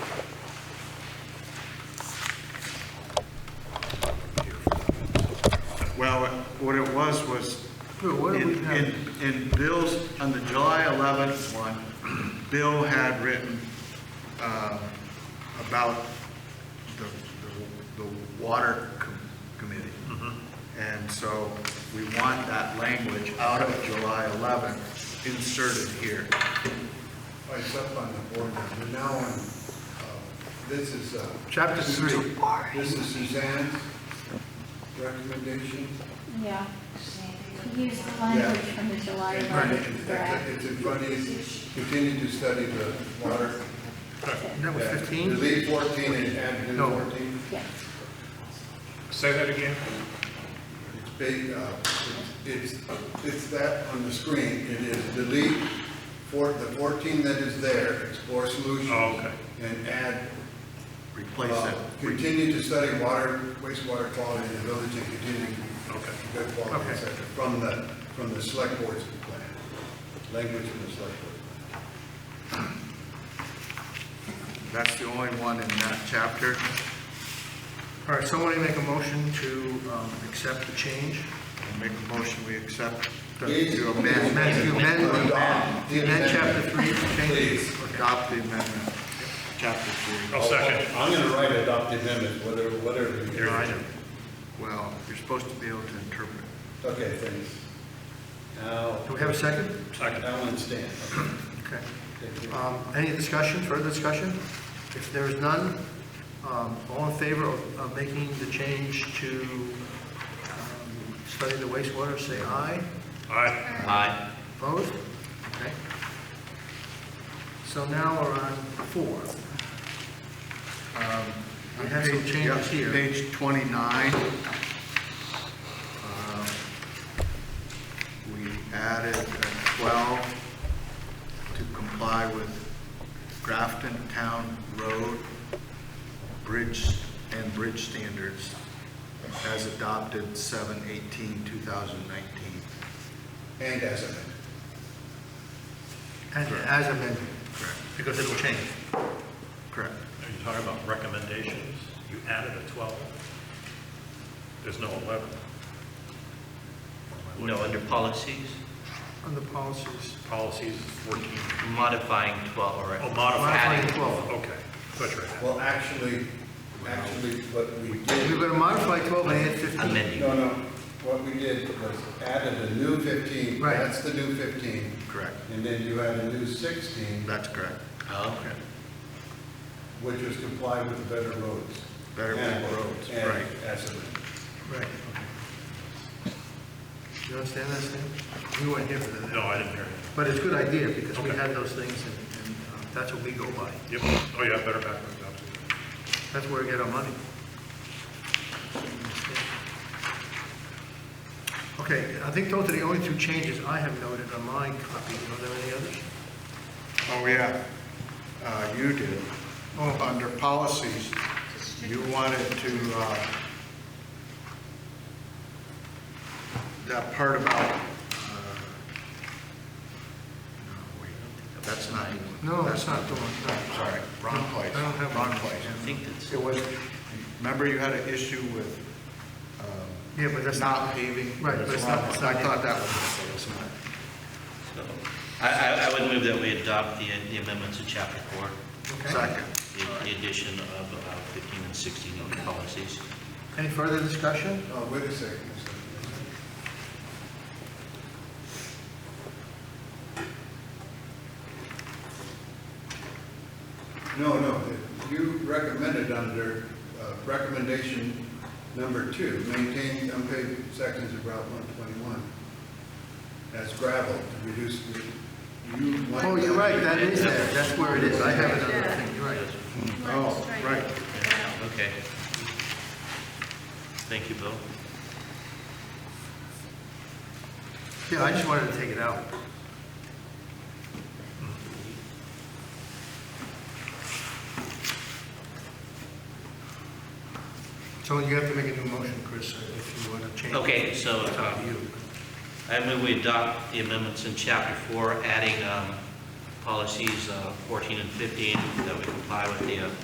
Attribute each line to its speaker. Speaker 1: Sure, what do we
Speaker 2: In,
Speaker 1: have?
Speaker 2: in, in Bill's, on the July 11th one, Bill had written uh, about the, the- the water com- committee.
Speaker 1: Mm-hmm.
Speaker 2: And so we want that language out of July 11th inserted here.
Speaker 3: Oh, It's up on the board now, but now on, uh, this is. uh,
Speaker 1: Chapter three.
Speaker 3: This is Suzanne's recommendation.
Speaker 4: Yeah. Use the language from the July
Speaker 3: And
Speaker 4: eleventh
Speaker 3: it's-
Speaker 4: draft.
Speaker 3: It's in front of you, continue to study the water.
Speaker 1: That was fifteen?
Speaker 3: Delete 14 and add new
Speaker 1: No.
Speaker 3: 14.
Speaker 4: Yes.
Speaker 5: Say that again?
Speaker 3: It's big, uh, it's, it's that on the screen, it is delete for, the 14 that is there, explore solutions.
Speaker 5: Oh, okay.
Speaker 3: And add
Speaker 2: Replace
Speaker 3: Uh,
Speaker 2: it.
Speaker 3: Continue to study water, wastewater quality in the village and continue
Speaker 5: Okay.
Speaker 3: good quality,
Speaker 1: Okay.
Speaker 3: et cetera, from the, from the select board's plan, language from the select board.
Speaker 2: That's the only one in that chapter.
Speaker 1: All right, somebody make a motion to, um, accept the change?
Speaker 2: I'll Make a motion, we accept, the-
Speaker 3: Please.
Speaker 2: to
Speaker 1: Amend, amend, you
Speaker 2: amend,
Speaker 1: amend,
Speaker 3: Adopt
Speaker 1: amend,
Speaker 3: the
Speaker 1: amend
Speaker 3: amendment.
Speaker 1: chapter three, to change it.
Speaker 3: Please.
Speaker 2: adopt the amendment, chapter three.
Speaker 1: Oh,
Speaker 5: I'll second.
Speaker 3: I'm gonna write adopt amendment, whatever, whatever. you-
Speaker 5: Here, I know.
Speaker 2: Well, you're supposed to be able to interpret.
Speaker 3: Okay, thanks. Now,
Speaker 1: Do we have a second?
Speaker 5: Second.
Speaker 3: that one stands. Okay,
Speaker 1: Okay.
Speaker 3: thank you.
Speaker 1: Um, Any discussion, further discussion? If there is none, um, all in favor of of making the change to um, study the wastewater, say aye.
Speaker 5: Aye.
Speaker 1: Opposed? Okay. So now we're on four.
Speaker 2: Um,
Speaker 1: We have some
Speaker 2: page-
Speaker 1: changes
Speaker 2: yeah,
Speaker 1: here.
Speaker 2: Page 29. um, We added a 12 to comply with Grafton Town Road Bridge and Bridge Standards as adopted 7/18/2019.
Speaker 3: And as amended.
Speaker 1: And as amended. Because it'll change.
Speaker 2: Correct.
Speaker 5: Are you talking about recommendations? You added a 12. There's no 11.
Speaker 6: No, under policies,
Speaker 1: On the policies.
Speaker 5: Policies is 14.
Speaker 6: modifying 12 or.
Speaker 5: Oh, modifying.
Speaker 1: Modifying 12.
Speaker 5: Okay, that's right.
Speaker 3: Well, actually, actually, what we
Speaker 1: We're
Speaker 3: did,
Speaker 1: going to modify 12 and add 15.
Speaker 6: Amending.
Speaker 3: no, no, what we did was added a new 15.
Speaker 1: Right.
Speaker 3: That's the new 15.
Speaker 2: Correct.
Speaker 3: And then you add a new 16,
Speaker 2: That's correct.
Speaker 6: Okay.
Speaker 3: which was comply with the better roads.
Speaker 2: Better
Speaker 3: And-
Speaker 2: roads,
Speaker 3: and
Speaker 2: right.
Speaker 3: as amended.
Speaker 1: Right. okay. You understand that, Stan? We weren't here for that.
Speaker 5: No, I didn't hear it.
Speaker 1: But it's a good idea, because we
Speaker 5: Okay.
Speaker 1: had those things, and and, uh, that's what we go by.
Speaker 5: Yep. Oh, yeah, better backwards, absolutely.
Speaker 1: That's where we get our money. Okay, I think those are the only two changes I have noted on my copy. Are there any others?
Speaker 2: Oh, yeah, Uh, you did. Oh, Under policies, you wanted to, uh, that part about, uh, no, wait, that's not the one.
Speaker 1: No,
Speaker 2: That's
Speaker 1: that's not the one, no.
Speaker 2: Sorry, wrong place,
Speaker 1: I don't have one.
Speaker 2: wrong place.
Speaker 6: I think that's,
Speaker 2: It was, remember you had an issue with um,
Speaker 1: Yeah, but that's not,
Speaker 2: not paving?
Speaker 1: Right, but it's not- it's not-
Speaker 2: I thought that was,
Speaker 6: so, I, I, I would move that we adopt the the amendments to chapter four,
Speaker 1: okay.
Speaker 2: second.
Speaker 6: the- the addition of uh, 15 and 16 on the policies.
Speaker 1: Any further discussion?
Speaker 3: Oh, wait a second. a second. No, no, you recommended under uh, recommendation number two, maintain unpaved sections of Route 121 as gravel to reduce the, you want.
Speaker 1: Oh, you're right, that is there, that's where it is. I have another thing, you're right.
Speaker 2: Oh, right.
Speaker 6: Yeah, Okay. Thank you, Bill.
Speaker 1: Yeah, I just wanted to take it out. So you have to make a new motion, Chris, if you want to change.
Speaker 6: Okay, so, um,
Speaker 1: It's up to you.
Speaker 6: I move we adopt the amendments in chapter four, adding um, policies uh, 14 and 15 that we comply with the uh,